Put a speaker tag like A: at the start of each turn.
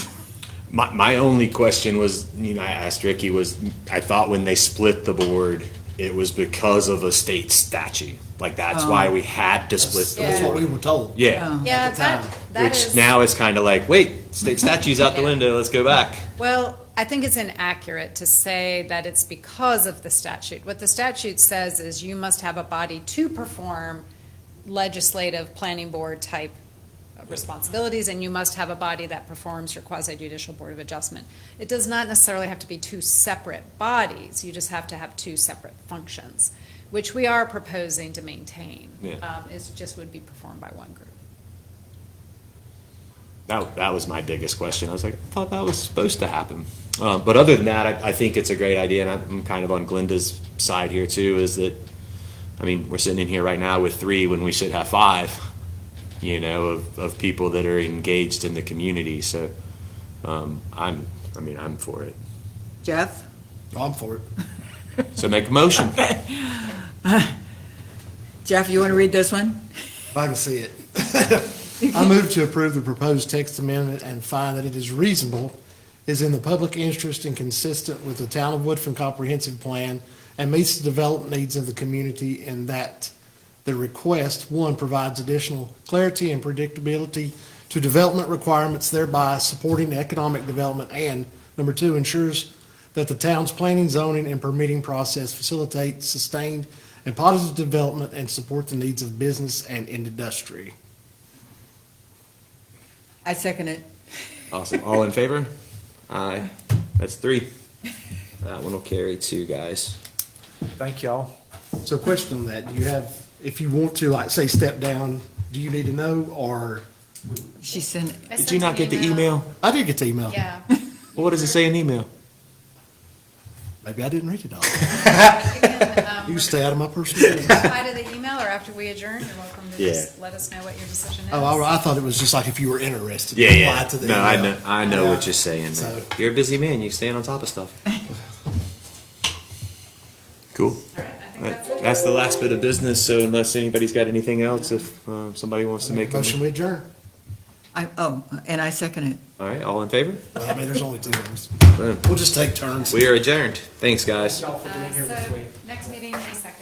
A: My, my only question was, you know, I asked Ricky was, I thought when they split the board, it was because of a state statute. Like that's why we had to split the
B: That's what we
A: board.
B: were told.
A: Yeah.
C: Yeah,
B: the
C: that,
B: time.
C: Oh. that
A: Which
C: is,
A: now is kind of like, wait, state statute's out the window, let's go back.
C: well, I think it's inaccurate to say that it's because of the statute. What the statute says is you must have a body to perform legislative, planning board type responsibilities, and you must have a body that performs your quasi judicial board of adjustment. It does not necessarily have to be two separate bodies, you just have to have two separate functions, which we are proposing to maintain.
A: Yeah.
C: Um, It's just would be performed by one group.
A: That, that was my biggest question. I was like, I thought that was supposed to happen. Uh, but other than that, I, I think it's a great idea, and I'm kind of on Glenda's side here too. Is that, I mean, we're sitting in here right now with three when we should have five, you know, of, of people that are engaged in the community. So, um, I'm, I mean, I'm for it.
D: Jeff?
B: I'm for it.
A: So make a motion.
D: Jeff, you want to read this one?
B: If I can see it. I move to approve the proposed text amendment and find that it is reasonable, is in the public interest and consistent with the Town of Woodfin Comprehensive Plan and meets the development needs of the community in that the request, one, provides additional clarity and predictability to development requirements, thereby supporting economic development, and number two, ensures that the town's planning, zoning, and permitting process facilitates sustained and positive development and support the needs of business and industry.
D: I second it.
A: Awesome. All in favor? Aye. That's three. That one will carry two guys.
E: Thank y'all.
B: So question on that, do you have, if you want to, like, say, step down, do you need to know, or,
D: She sent,
A: Did you not get the email?
B: I did get the email.
C: Yeah.
A: Well, What does it say in email?
B: Maybe I didn't read it all.
C: You can, um,
B: You stay out of my personal. email.
C: reply to the email or after we adjourn, you're welcome to just let us know what your decision is.
B: Oh, I, I thought it was just like if you were interested.
A: Yeah,
B: apply
A: yeah.
B: to the
A: No, I
B: email.
A: know, I know what
B: Yeah.
A: you're saying.
B: So-
A: You're a busy man. You stand on top of stuff. Cool.
C: All right, I think that's it.
A: That's the last bit of business. So unless anybody's got anything else, if um, somebody wants to make a motion.
B: Motion we adjourn.
D: I, oh, and I second it.
A: All right, all in favor?
B: Well, I mean, there's only two of us. We'll just take turns.
A: We are adjourned. Thanks, guys.
C: Uh, So, next meeting, May second.